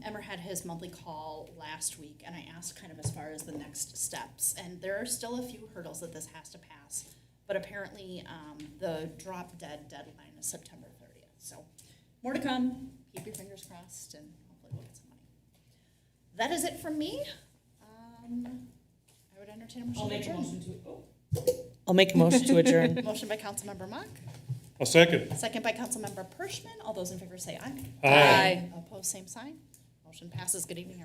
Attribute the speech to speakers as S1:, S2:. S1: Emmer had his monthly call last week, and I asked kind of as far as the next steps. And there are still a few hurdles that this has to pass, but apparently um, the drop dead deadline is September 30th. So more to come. Keep your fingers crossed, and hopefully we'll get some money. That is it from me. Um, I would entertain a motion.
S2: I'll
S1: to
S2: make a
S1: adjourn.
S2: motion to, oh.
S3: I'll make a motion to adjourn.
S1: Motion by Councilmember Mock,
S4: I'll second.
S1: second by Councilmember Pershman. All those in favor say aye.
S4: Aye.
S1: Opposed, same sign. Motion passes. Good evening,